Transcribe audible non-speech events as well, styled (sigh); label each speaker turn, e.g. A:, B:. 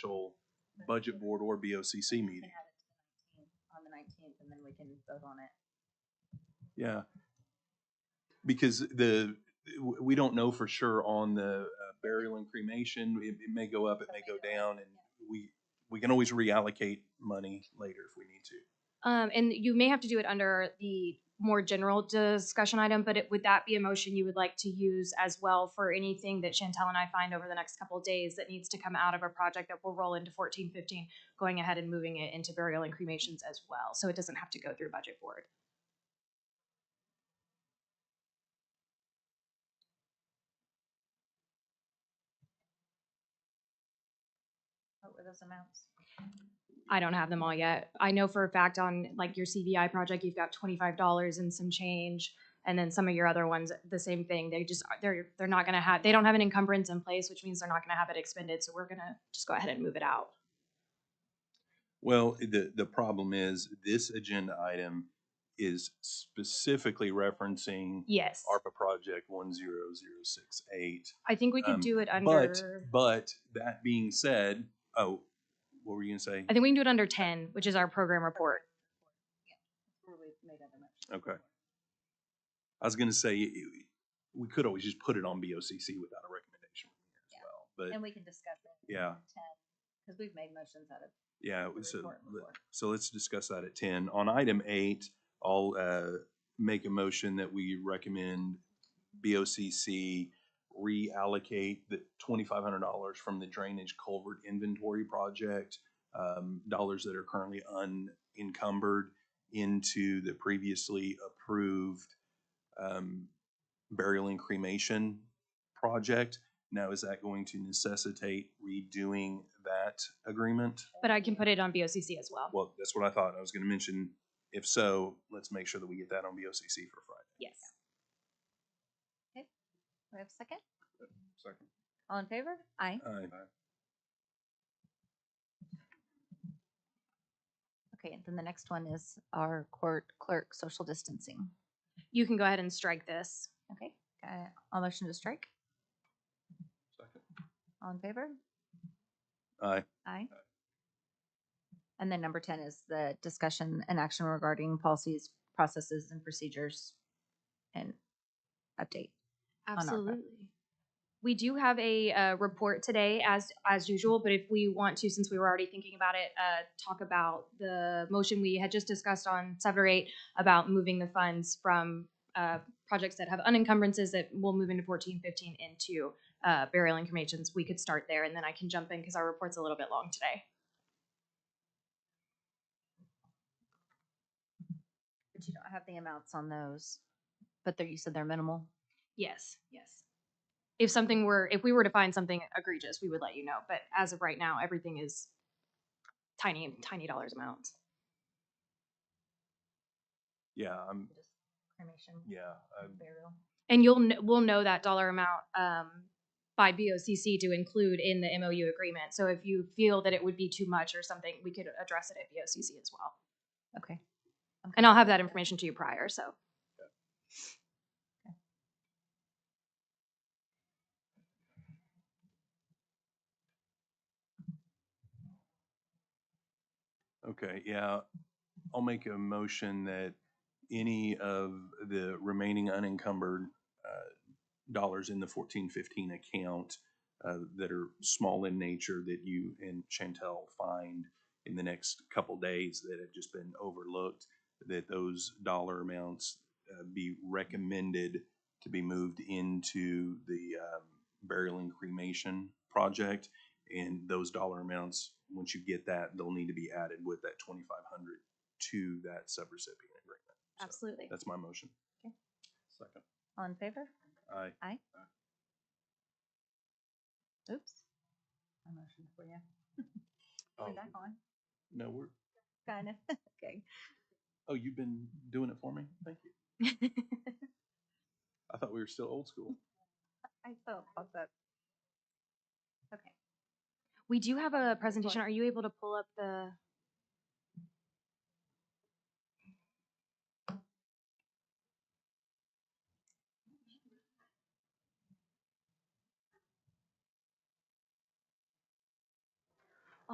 A: actual budget board or BOCC
B: We
A: meeting.
B: can add it to the 19th, On the nineteenth, and then we can vote on it.
A: Yeah. Because the, w- we don't know for sure on the uh, burial and cremation. It, it may go up, it may go down, and we, we can always reallocate money later if we need to.
C: Um, and you may have to do it under the more general discussion item, but it, would that be a motion you would like to use as well for anything that Chantel and I find over the next couple of days that needs to come out of a project that will roll into fourteen fifteen, going ahead and moving it into burial and cremations as well, so it doesn't have to go through budget board.
B: What were those amounts?
C: I don't have them all yet. I know for a fact on like your CVI project, you've got twenty-five dollars and some change. And then some of your other ones, the same thing. They just, are- they're, they're not gonna have, they don't have an encumbrance in place, which means they're not gonna have it expended. So we're gonna just go ahead and move it out.
A: Well, the, the problem is this agenda item is specifically referencing
C: Yes.
A: ARPA project one zero zero six eight.
C: I think we
A: um,
C: could do it
A: But,
C: under,
A: but that being said, oh, what were you gonna say?
C: I think we can do it under ten, which is our program report.
B: Yeah, that's Where we made other motions.
A: Okay. I was gonna say, y- y- we could always just put it on BOCC without a recommendation
B: Yeah.
A: from here as well,
B: And
A: but
B: we can discuss it.
A: Yeah.
B: Because we've made motions out of.
A: yeah,
B: the
A: so,
B: report
A: let-
B: before.
A: so let's discuss that at ten. On item eight, I'll, uh, make a motion that we recommend BOCC reallocate the twenty-five hundred dollars from the drainage culvert inventory project, um, dollars that are currently unencumbered into the previously approved, um, burial and cremation project. Now, is that going to necessitate redoing that agreement?
C: But I can put it on BOCC as well.
A: Well, that's what I thought. I was gonna mention, if so, let's make sure that we get that on BOCC for Friday.
C: Yes.
B: We have a second?
A: Second.
B: All in favor? Aye. Okay, and then the next one is our court clerk, social distancing.
C: You can go ahead and strike this.
B: Okay, uh, all motion to strike?
A: Second.
B: All in favor?
A: Aye.
B: Aye. And then number ten is the discussion and action regarding policies, processes, and procedures and update. on our part.
C: Absolutely. We do have a uh, report today, as as usual. But if we want to, since we were already thinking about it, uh, talk about the motion we had just discussed on seven or eight about moving the funds from uh, projects that have unencumbrances that will move into fourteen fifteen into uh, burial and cremations. We could start there, and then I can jump in because our report's a little bit long today.
B: But you don't have the amounts on those, but they're, you said they're minimal?
C: Yes, yes. If something were, if we were to find something egregious, we would let you know. But as of right now, everything is tiny, tiny dollars amount.
A: Yeah, I'm,
B: Just Cremation,
A: yeah, um, I'm-
B: burial.
C: And you'll, kn- we'll know that dollar amount um, by BOCC to include in the MOU agreement. So if you feel that it would be too much or something, we could address it at BOCC as well.
B: Okay. I'm
C: And I'll
B: good.
C: have that information to you prior, so.
A: okay, yeah. I'll make a motion that any of the remaining unencumbered uh, dollars in the fourteen fifteen account uh, that are small in nature that you and Chantel find in the next couple days that have just been overlooked, that those dollar amounts uh, be recommended to be moved into the um, burial and cremation project. And those dollar amounts, once you get that, they'll need to be added with that twenty-five hundred to that subrecipient agreement. So
C: Absolutely.
A: That's my motion.
B: Okay.
A: Second.
B: All in favor?
A: Aye.
B: Oops. I motion for you.
A: Oh,
B: Where'd that go?
A: No, we're,
B: Kinda, (laughs) okay.
A: oh, you've been doing it for me? Thank you.
C: (laughs)
A: I thought we were still old school.
B: I thought about that. Okay.
C: We do have a presentation. Are you able to pull up the